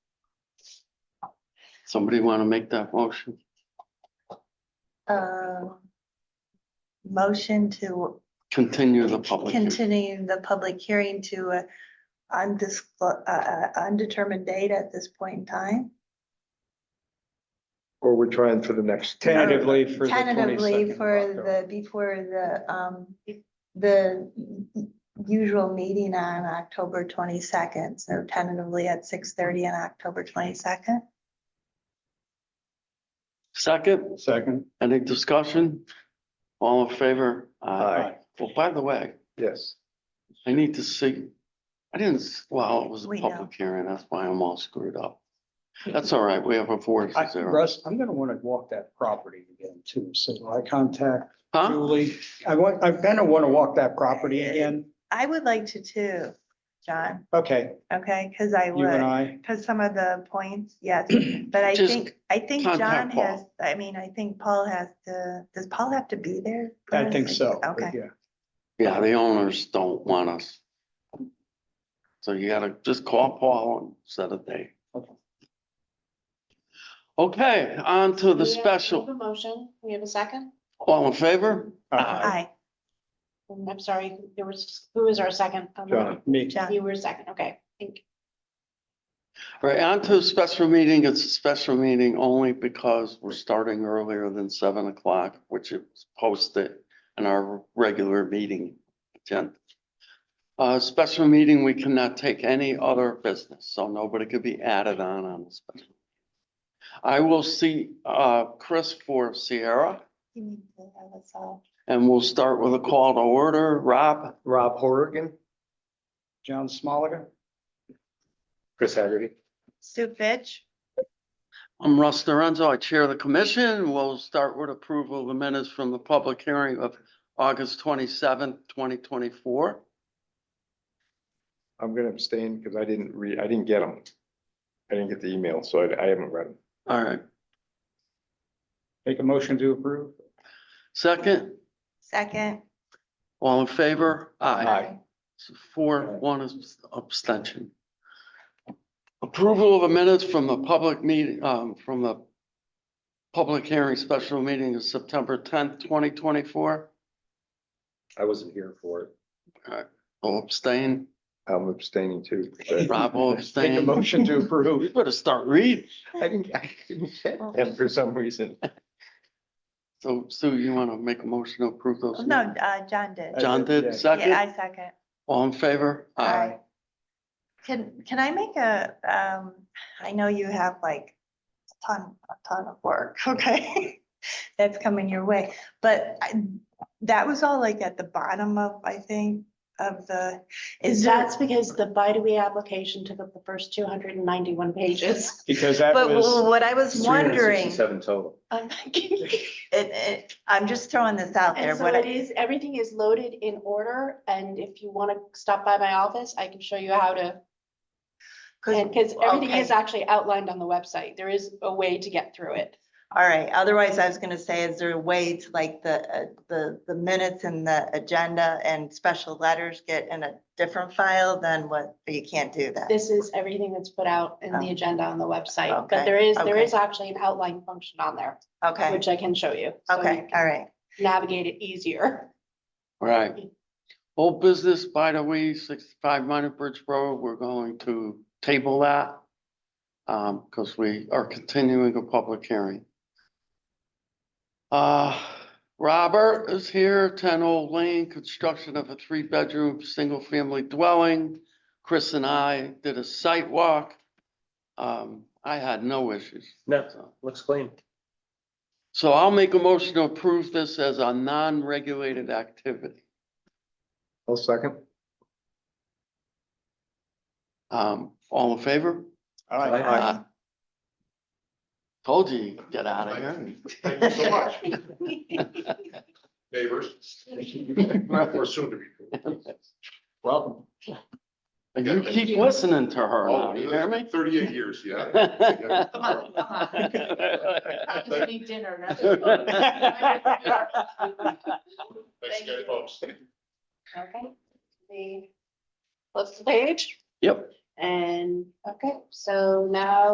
Somebody want to make that motion? Um, Motion to Continue the public. hearing. continue the public hearing to a undisclo- uh, uh, undetermined date at this point in time. Or we're trying for the next. Tentatively for the Tentatively 22nd of for October. the, before the, um, the usual meeting on October twenty-second. So tentatively at six thirty on October twenty-second. Second, Second. any discussion? All in favor? Aye. Well, by the way, Yes, I need to see, I didn't, s- well, it was a We public hearing, that's why I'm all screwed up. Yeah. That's all right, we have a four I, to zero. Russ, I'm gonna wanna walk that property again too, so I contact Huh? Julie. I want, I'm gonna wanna walk that property again. I would like to too, John, Okay, okay, because I you would, and I, because some of the points, yes. But I Just think, I think John contact has, I mean, I think Paul has to, does Paul have to be there? for I this? think so. Okay, Yeah. Yeah, the owners don't want us. So you gotta just call Paul and set a date. Okay. Okay, on to the We have- we have special, a motion, we have a second, all in favor? Uh-huh. Aye. aye, And I'm sorry, there was, who was our second? Um, John. Me, John, You were second, okay, thank you. Right, on to a special meeting. It's a special meeting only because we're starting earlier than seven o'clock, which is posted in our regular meeting agenda. Uh, special meeting, we cannot take any other business, so nobody could be added on on the special. I will see, uh, Chris for Sierra you need to have us all. and we'll start with a call to order. Rob? Rob Horrigan, John Smoliger. Chris Haggerty. Sue Fitch, I'm Russ Lorenzo. I chair the commission. We'll start with approval of the minutes from the public hearing of August twenty-seventh, twenty twenty-four. I'm gonna abstain because I didn't read, I didn't get them. I didn't get the email, so I, I haven't read them. All right. Make a motion to approve. Second, second. all in favor? Aye. Aye. So Four, one is abstention. Approval of the minutes from the public meeting, um, from the public hearing special meeting of September tenth, twenty twenty-four. I wasn't here for it. I'll abstain. I'm abstaining too. but- Rob will Make a abstain. motion to We approve. better start reading. I didn't, I didn't get them for some reason. So Sue, you want to make a motion to approve those? No, minutes? uh, John did. Uh, John Yeah. did, Yeah, second, I second. all in favor? Aye. Can, can I make a, um, I know you have like a ton, a ton of work, okay? That's coming your way, but I, that was all like at the bottom of, I think, of the, is there? That's because the Bidoe application took up the first two hundred and ninety-one pages. Because that But w- was, what I was wondering, total. I'm thinking- it, it, I'm just throwing this out there, And so what it I, is, everything is loaded in order, and if you wanna stop by my office, I can show you how to. And, cause, cause everything okay. is actually outlined on the website, there is a way to get through it. all right, otherwise I was gonna say, is there a way to like the, uh, the, the minutes and the agenda and special letters get in a different file than what, but you can't do that? This is everything that's put out in the Oh. agenda on the website, Okay, but there is, there okay. is actually an outline function on there, Okay, which I can show you. so you okay, can all right. Navigate it easier. Right. Old business, by the way, sixty-five Minor Bridge Road, we're going to table that. Um, because we are continuing a public hearing. Uh, Robert is here, ten Old Lane, construction of a three-bedroom, single-family dwelling. Chris and I did a site walk. Um, I had no issues. No. so. Looks clean. So I'll make a motion to approve this as a non-regulated activity. I'll second. Um, all in favor? Aye. Aye. Told you, you'd get out of here. Thank you so much, neighbors. Or soon to be. Welcome. And you keep listening to her now, you hear me? Oh, Thirty-eight years, yeah. Just need dinner. Thanks, guys, folks. Okay. The, flip the page Yep. and, okay, so now